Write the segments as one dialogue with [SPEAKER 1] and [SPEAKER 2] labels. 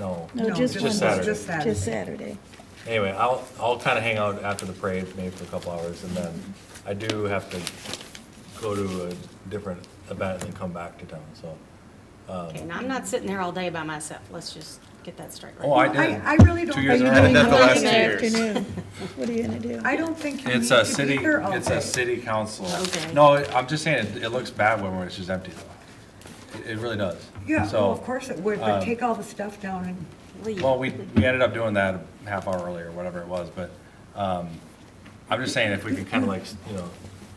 [SPEAKER 1] No,
[SPEAKER 2] No,
[SPEAKER 1] just
[SPEAKER 2] just
[SPEAKER 1] one.
[SPEAKER 2] Saturday.
[SPEAKER 1] Just
[SPEAKER 2] Just
[SPEAKER 1] Saturday.
[SPEAKER 2] Anyway, I'll, I'll kind of hang out after the parade, maybe for a couple hours, and then I do have to go to a different event and then come back to town, so.
[SPEAKER 3] Okay, now I'm not sitting there all day by myself, let's just get that straight. right
[SPEAKER 2] Oh, I
[SPEAKER 3] now.
[SPEAKER 2] did.
[SPEAKER 1] I really don't
[SPEAKER 2] Two years
[SPEAKER 1] think you
[SPEAKER 2] in a
[SPEAKER 1] need
[SPEAKER 2] row.
[SPEAKER 1] to
[SPEAKER 4] Did that the
[SPEAKER 1] be
[SPEAKER 4] last
[SPEAKER 1] here
[SPEAKER 4] two years.
[SPEAKER 1] afternoon. What are you gonna do?
[SPEAKER 5] I don't think you need
[SPEAKER 2] It's a
[SPEAKER 5] to be
[SPEAKER 2] city,
[SPEAKER 5] here all
[SPEAKER 2] it's a
[SPEAKER 5] day.
[SPEAKER 2] city council.
[SPEAKER 3] Okay.
[SPEAKER 2] No, I'm just saying, it- it looks bad when it's just empty, though. It- It really does.
[SPEAKER 5] Yeah, well,
[SPEAKER 2] So, um,
[SPEAKER 5] of course it would, but take all the stuff down and,
[SPEAKER 3] Leave.
[SPEAKER 2] Well, we, we ended up doing that a half hour early or whatever it was, but, um, I'm just saying if we could kind of like, you know,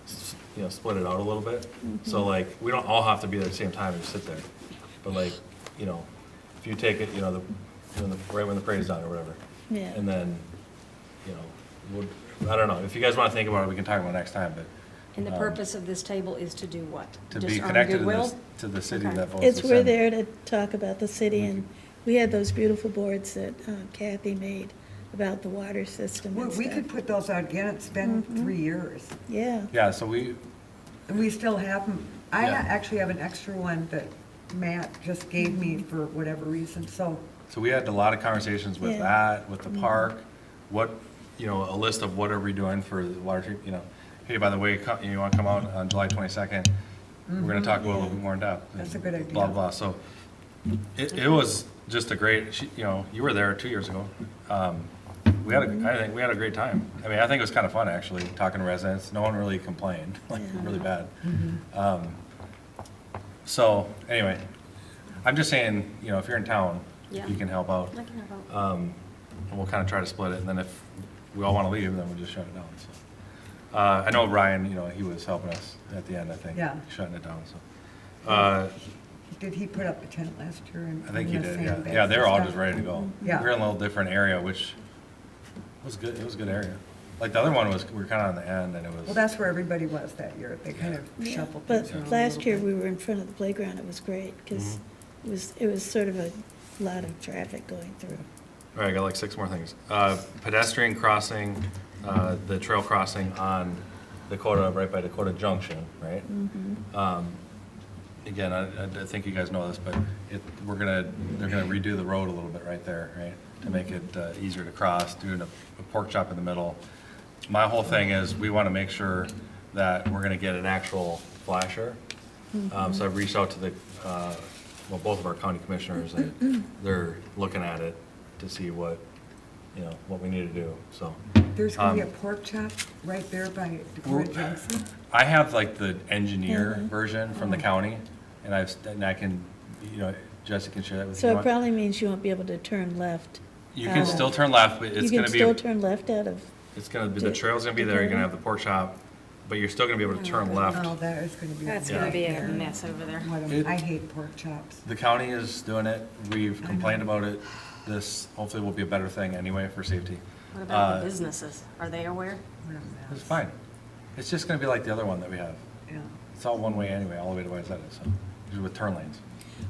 [SPEAKER 2] s- you know, split it out a little bit.
[SPEAKER 3] Mm-hmm.
[SPEAKER 2] So like, we don't all have to be there at the same time and just sit there. But like, you know, if you take it, you know, the, when the, right when the parade's done or whatever.
[SPEAKER 1] Yeah.
[SPEAKER 2] And then, you know, we'll, I don't know, if you guys want to think about it, we can talk about it next time, but
[SPEAKER 3] And the purpose of this table is to do what?
[SPEAKER 2] to
[SPEAKER 3] Just
[SPEAKER 2] be
[SPEAKER 3] earn
[SPEAKER 2] connected to
[SPEAKER 3] goodwill?
[SPEAKER 2] the, to the city
[SPEAKER 3] Okay.
[SPEAKER 2] that votes.
[SPEAKER 1] It's,
[SPEAKER 2] us
[SPEAKER 1] we're
[SPEAKER 2] in.
[SPEAKER 1] there to talk about the city, and we had those beautiful boards that uh, Kathy made about the water system
[SPEAKER 5] we
[SPEAKER 1] and
[SPEAKER 5] we could
[SPEAKER 1] stuff.
[SPEAKER 5] put those out again, it's been
[SPEAKER 1] Mm-hmm.
[SPEAKER 5] three years.
[SPEAKER 1] Yeah,
[SPEAKER 2] Yeah, so we,
[SPEAKER 5] And we still have them. I
[SPEAKER 2] Yeah.
[SPEAKER 5] actually have an extra one that Matt just gave me
[SPEAKER 1] Mm-hmm.
[SPEAKER 5] for whatever reason, so.
[SPEAKER 2] So we had a lot of conversations with
[SPEAKER 1] Yeah.
[SPEAKER 2] that, with the park, what, you know, a list of what are we doing for the water treat, you know, hey, by the way, co- you wanna come out on July twenty-second? We're gonna talk about what we warmed up. and
[SPEAKER 5] Mm-hmm. That's a good idea.
[SPEAKER 2] Blah, blah, so it, it was just a great, she- you know, you were there two years ago. Um, We had,
[SPEAKER 5] Mm-hmm.
[SPEAKER 2] a I think, we had a great time. I mean, I think it was kind of fun, actually, talking to residents. No one really complained, like, really bad.
[SPEAKER 5] Mm-hmm.
[SPEAKER 2] Um, So, anyway, I'm just saying, you know, if you're in town,
[SPEAKER 3] Yeah.
[SPEAKER 2] you can help out.
[SPEAKER 3] I can have a-
[SPEAKER 2] Um, And we'll kind of try to split it, and then if we all want to leave, then we'll just shut it down, so. Uh, I know Ryan, you know, he was helping us at the end, I think.
[SPEAKER 5] Yeah.
[SPEAKER 2] Shutting it down, so. Uh,
[SPEAKER 5] Did he put up the tent last year? and-
[SPEAKER 2] I think he
[SPEAKER 5] and the
[SPEAKER 2] did, yeah.
[SPEAKER 5] sandbags
[SPEAKER 2] Yeah, they were all
[SPEAKER 5] and
[SPEAKER 2] just
[SPEAKER 5] stuff?
[SPEAKER 2] ready to go.
[SPEAKER 5] Yeah.
[SPEAKER 2] We were in a little different area, which was good, it was a good area. Like, the other one was, we were kind of on the end, and it was.
[SPEAKER 5] Well, that's where everybody was that year. They kind of
[SPEAKER 1] yeah.
[SPEAKER 5] shuffled things around a
[SPEAKER 1] But last
[SPEAKER 5] little
[SPEAKER 1] year,
[SPEAKER 5] bit.
[SPEAKER 1] we were in front of the playground, it was great, because
[SPEAKER 2] Mm-hmm.
[SPEAKER 1] it was, it was sort of a lot of traffic going through.
[SPEAKER 2] All right, I got like six more things. Uh, Pedestrian crossing, uh, the trail crossing on Dakota, right by Dakota Junction, right? Um, Again, I, I think you guys know this, but it, we're gonna, they're gonna redo the road a little bit right there, right? To make it uh, easier to cross, doing a a pork chop in the middle. My whole thing is, we wanna make sure that we're gonna get an actual flasher. Um, So I've reached out to the, uh, well, both of our county commissioners, and they're looking at it to see what, you know, what we need to do, so.
[SPEAKER 5] There's going to
[SPEAKER 2] um,
[SPEAKER 5] be a pork chop right there by
[SPEAKER 2] We're-
[SPEAKER 5] Dakota Johnson.
[SPEAKER 2] I have like the engineer
[SPEAKER 1] Mm-hmm.
[SPEAKER 2] version from the county, and I've, and I can, you know, Jessica can share that with you.
[SPEAKER 1] So
[SPEAKER 2] if
[SPEAKER 1] it
[SPEAKER 2] you want.
[SPEAKER 1] probably means you won't be able to turn left.
[SPEAKER 2] You can
[SPEAKER 1] out
[SPEAKER 2] still
[SPEAKER 1] of-
[SPEAKER 2] turn left, but it's
[SPEAKER 1] You can
[SPEAKER 2] gonna
[SPEAKER 1] still
[SPEAKER 2] be,
[SPEAKER 1] turn left out of,
[SPEAKER 2] it's gonna be, the trail's gonna be there, you're gonna have the pork chop, but you're still gonna be able to turn
[SPEAKER 5] Oh,
[SPEAKER 2] left.
[SPEAKER 5] that is going to be.
[SPEAKER 3] That's gonna be a
[SPEAKER 5] nightmare.
[SPEAKER 3] mess over there.
[SPEAKER 5] What a-
[SPEAKER 2] It-
[SPEAKER 5] I hate pork chops.
[SPEAKER 2] The county is doing it, we've complained about it, this hopefully will be a better thing anyway for safety.
[SPEAKER 3] What about
[SPEAKER 2] Uh,
[SPEAKER 3] the businesses? Are they aware?
[SPEAKER 5] What a
[SPEAKER 2] It's
[SPEAKER 5] mess.
[SPEAKER 2] fine, it's just gonna be like the other one that we have.
[SPEAKER 5] Yeah.
[SPEAKER 2] It's all one way anyway, all the way to Wayzata, so, usually with turn lanes.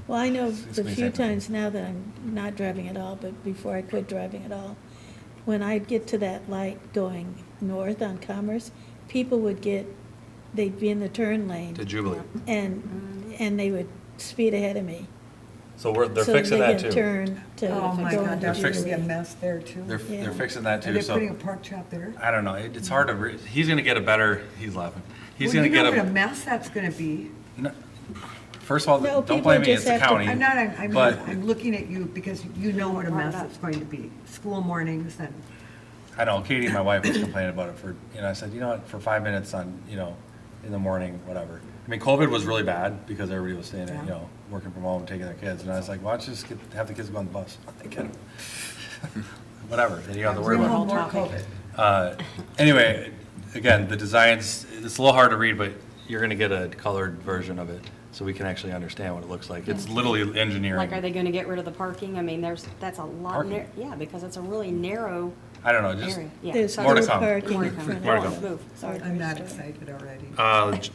[SPEAKER 1] well, I know
[SPEAKER 2] It's
[SPEAKER 1] the
[SPEAKER 2] gonna be
[SPEAKER 1] few
[SPEAKER 2] safer.
[SPEAKER 1] times now that I'm not driving at all, but before I quit driving at all, when I'd get to that light going north on Commerce, people would get, they'd be in the turn lane.
[SPEAKER 2] To Jubilee.
[SPEAKER 1] And, and they would speed ahead of me.
[SPEAKER 2] So we're, they're
[SPEAKER 1] so
[SPEAKER 2] fixing that too.
[SPEAKER 1] they could turn to go
[SPEAKER 5] Oh, my God,
[SPEAKER 1] into
[SPEAKER 5] that's going to be a
[SPEAKER 1] Jubilee.
[SPEAKER 5] mess there, too.
[SPEAKER 2] They're,
[SPEAKER 1] Yeah.
[SPEAKER 2] they're fixing that
[SPEAKER 5] Are
[SPEAKER 2] too,
[SPEAKER 5] they
[SPEAKER 2] so.
[SPEAKER 5] putting a pork chop there?
[SPEAKER 2] I don't know. It, it's hard to. Re- he's going to get a better. He's laughing. He's
[SPEAKER 5] Well,
[SPEAKER 2] going to
[SPEAKER 5] you know
[SPEAKER 2] get
[SPEAKER 5] What a
[SPEAKER 2] a.
[SPEAKER 5] mess that's going to be.
[SPEAKER 2] First of all,
[SPEAKER 1] No,
[SPEAKER 2] don't
[SPEAKER 1] people
[SPEAKER 2] blame me. It's
[SPEAKER 1] just
[SPEAKER 2] the
[SPEAKER 1] have to-
[SPEAKER 2] county.
[SPEAKER 5] I'm not, I'm, I'm-
[SPEAKER 2] but
[SPEAKER 5] I'm looking at you because you know what a mess it's going to be. School mornings and,
[SPEAKER 2] I know Katie, my wife, was complaining about it for. You know, I said, you know what? For five minutes on, you know, in the morning, whatever. I mean, COVID was really bad because everybody was staying, at, you
[SPEAKER 5] Yeah.
[SPEAKER 2] know, working from home, taking their kids, and I was like, why don't you just get, have the kids go on the bus? Get 'em. whatever. Then you don't have to worry about. it.
[SPEAKER 5] more COVID.
[SPEAKER 3] topic.
[SPEAKER 2] Uh, Anyway, again, the designs, it's a little hard to read, but you're gonna get a colored version of it, so we can actually understand what it looks like. It's literally
[SPEAKER 3] Like, are
[SPEAKER 2] engineering.
[SPEAKER 3] they gonna get rid of the parking? I mean, there's, that's a lot,
[SPEAKER 2] Parking?
[SPEAKER 3] nar- yeah, because it's a really narrow
[SPEAKER 2] I don't know, just,
[SPEAKER 3] area. Yeah,
[SPEAKER 1] There's
[SPEAKER 3] so-
[SPEAKER 2] More to
[SPEAKER 1] still
[SPEAKER 2] come.
[SPEAKER 1] parking
[SPEAKER 3] More
[SPEAKER 1] in
[SPEAKER 3] to come.
[SPEAKER 1] front of.
[SPEAKER 2] More to come.
[SPEAKER 3] Move. Sorry.
[SPEAKER 5] I'm not excited already.
[SPEAKER 2] uh, j-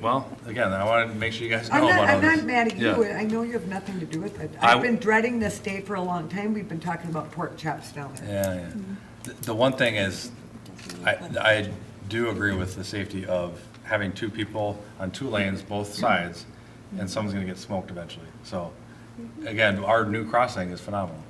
[SPEAKER 2] well, again, I wanted to make sure you guys
[SPEAKER 5] I'm
[SPEAKER 2] know
[SPEAKER 5] not,
[SPEAKER 2] about all
[SPEAKER 5] I'm
[SPEAKER 2] this.
[SPEAKER 5] not mad at you.
[SPEAKER 2] Yeah.
[SPEAKER 5] I know you have nothing to do with it.
[SPEAKER 2] I-
[SPEAKER 5] I've been dreading this day for a long time. We've been talking about pork chops down there.
[SPEAKER 2] Yeah, yeah. The- The one thing is, I, I do agree with the safety of having two people on two lanes, both sides, and someone's gonna get smoked eventually. So, again, our new crossing is phenomenal.